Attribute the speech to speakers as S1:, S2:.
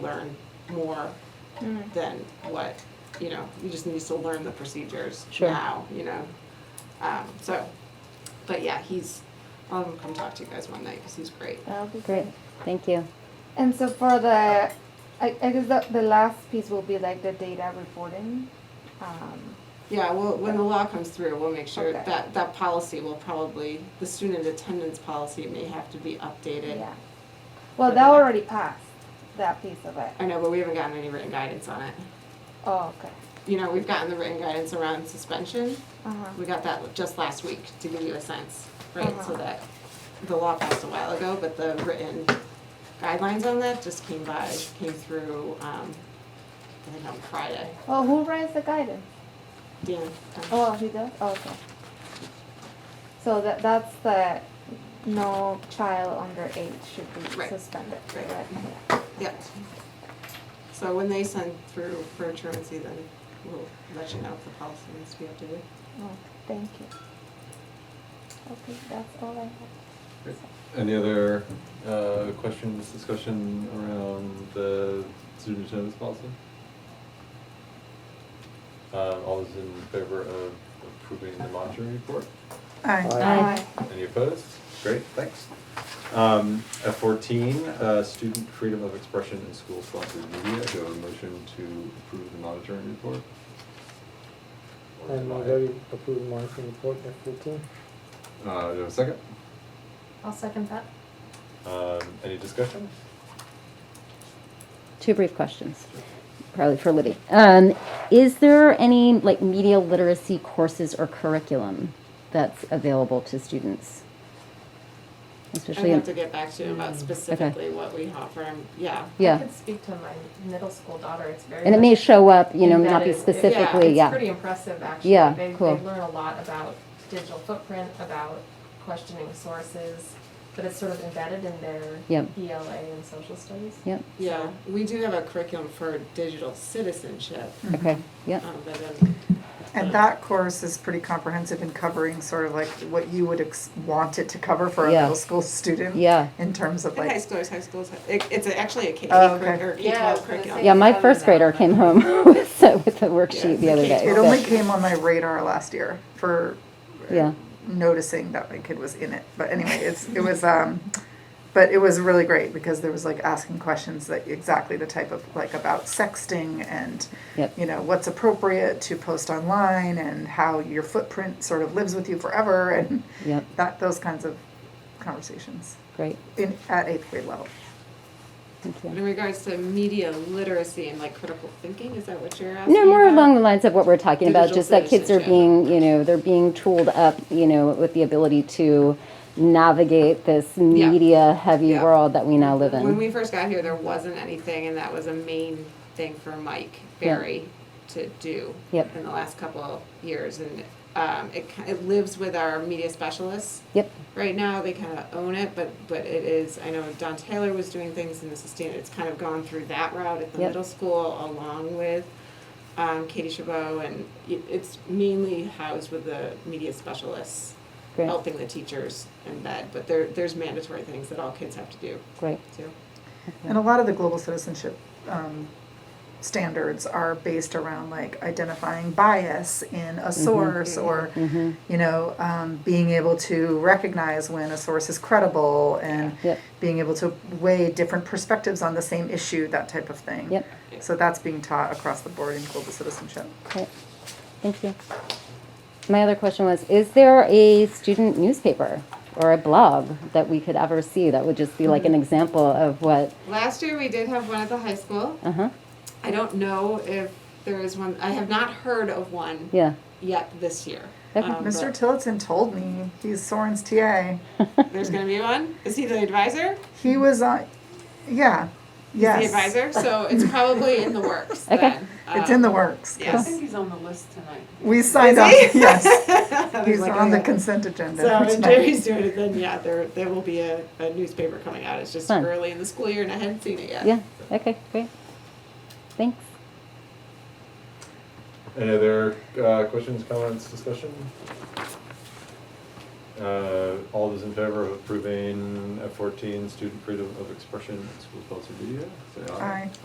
S1: learn more
S2: Hmm.
S1: than what, you know, he just needs to learn the procedures
S3: Sure.
S1: now, you know? Um, so, but yeah, he's, I'll have him come talk to you guys one night, cause he's great.
S3: That'll be great. Thank you.
S2: And so for the, I, I guess the, the last piece will be like the data reporting. Um,
S1: Yeah, well, when the law comes through, we'll make sure
S2: Okay.
S1: that, that policy will probably, the student attendance policy may have to be updated.
S2: yeah. Well, that already passed, that piece of it.
S1: I know, but we haven't gotten any written guidance on it.
S2: Oh, okay.
S1: You know, we've gotten the written guidance around suspension,
S2: Uh-huh.
S1: We got that just last week, to give you a sense, right, so
S2: Uh-huh.
S1: that, the law passed a while ago, but the written guidelines on that just came by, came through, um, I think on Friday.
S2: Well, who writes the guidance?
S1: Dan, um,
S2: Oh, he does? Oh, okay. So that, that's the, no child under eight should be
S1: Right.
S2: suspended,
S1: Right. Mm-hmm.
S2: right?
S3: Oh.
S1: yeah. So when they send through for truancy, then we'll let you know if the policy needs to be updated.
S2: Oh, thank you. Okay, that's all I have.
S4: Any other uh, questions, discussion around the student attendance policy? Uh, All those in favor of approving the monitoring report?
S3: Aye.
S4: Any opposed? Great, thanks. Um, F fourteen, uh, student freedom of expression in school-sponsored media. Do I have a motion to approve the monitoring report? Or
S5: And
S4: deny
S5: I'm
S4: it?
S5: very approved monitoring report at fourteen.
S4: Uh, do I have a second?
S6: I'll second that.
S4: Um, Any discussion?
S3: Two brief questions, probably for Libby. Um, is there any like media literacy courses or curriculum that's available to students?
S1: I
S3: Especially,
S1: have
S3: in,
S1: to get back to you about specifically what we offer, um, yeah.
S3: Mm, yeah,
S6: I could speak to my middle school daughter, it's very.
S3: and it may
S6: much
S3: show up, you know, not be
S6: embedded. It-
S3: specifically,
S6: Yeah,
S3: yeah.
S6: it's pretty impressive, actually.
S3: Yeah,
S6: They,
S3: cool.
S6: they learn a lot about digital footprint, about questioning sources, but it's sort of embedded in their
S3: Yep.
S6: ELA and social studies.
S3: Yep.
S1: Yeah, we do have a curriculum for digital citizenship,
S3: Okay. Yep.
S1: um, but then,
S7: And that course is pretty comprehensive in covering sort of like what you would ex- want it to cover for a
S3: Yeah.
S7: middle school student.
S3: Yeah.
S7: In terms of
S1: I think high
S7: like,
S1: school is high school, is- it, it's actually a K
S7: Oh,
S1: curri-
S7: okay.
S1: or K
S6: Yeah, I was
S1: twelve
S6: gonna
S1: curriculum.
S6: say-
S3: Yeah. My first grader came home with a, with a
S1: Yeah,
S3: worksheet the
S1: it's
S3: other
S1: like
S3: day.
S7: it
S3: so-
S7: only came on my radar last year for
S3: yeah.
S7: noticing that my kid was in it. But anyway, it's, it was, um, but it was really great because there was like asking questions that exactly the type of, like about sexting and,
S3: Yep.
S7: you know, what's appropriate to post online and how your footprint sort of lives with you forever and
S3: Yep.
S7: that, those kinds of conversations
S3: Great.
S7: in, at eighth grade level.
S3: Thank
S1: But
S3: you.
S1: In regards to media literacy and like critical thinking, is that what you're asking?
S3: No, more
S1: about?
S3: along the lines of what we're talking about,
S1: Digital
S3: just that kids are
S1: citizenship.
S3: being, you know, they're being tooled up, you know, with the ability to navigate this media heavy
S1: Yeah.
S3: world that we now live
S1: When
S3: in.
S1: we first got here, there wasn't anything, and that was a main thing for Mike
S3: Yeah.
S1: Barry to do
S3: Yep.
S1: in the last couple of years, and um, it ki- it lives with our media specialists.
S3: Yep,
S1: Right now, they kind of own it, but but it is. I know Don Taylor was doing things in the sustain. It's kind of gone through that route at the
S3: Yep.
S1: middle school along with. Um, Katie Chabot, and it- it's mainly housed with the media specialists
S3: great,
S1: helping the teachers embed, but there, there's mandatory things that all kids have to do
S3: great,
S1: too.
S7: And a lot of the global citizenship um, standards are based around like identifying bias in
S3: Mm-hmm.
S7: a source or, you know, um, being able to recognize when a source is credible and
S3: Yep.
S7: being able to weigh different perspectives on the same issue, that type of thing.
S3: Yep.
S7: So that's being taught across the board in global citizenship.
S3: great. Thank you. My other question was, is there a student newspaper or a blog that we could ever see that would just be like
S1: Mm-hmm.
S3: an example of what,
S1: Last year, we did have one at the high school.
S3: uh-huh,
S1: I don't know if there is one, I have not heard of one
S3: yeah,
S1: yet this year.
S3: Okay.
S1: Um,
S7: Mr.
S1: but
S7: Tillotson told me he's Soren's TA.
S1: There's gonna be one? Is he the advisor?
S7: He was on, yeah, yes.
S1: The advisor, so it's probably in the works
S3: Okay.
S1: then.
S7: It's
S1: Um,
S7: in the works.
S1: Yes.
S8: He's on the list tonight.
S7: We signed up, yes. He's
S1: Like,
S7: on the
S1: okay.
S7: consent agenda.
S1: So
S7: which
S1: if
S7: might-
S1: Jerry's doing it, then yeah, there, there will be a, a newspaper coming out. It's just
S3: Fun.
S1: early in the school year and I hadn't seen it yet.
S3: yeah, okay, great. Thanks.
S4: Any other uh, questions, comments, discussion? Uh, All those in favor of approving F fourteen, student freedom of expression at school sponsored media, say aye.
S7: Aye.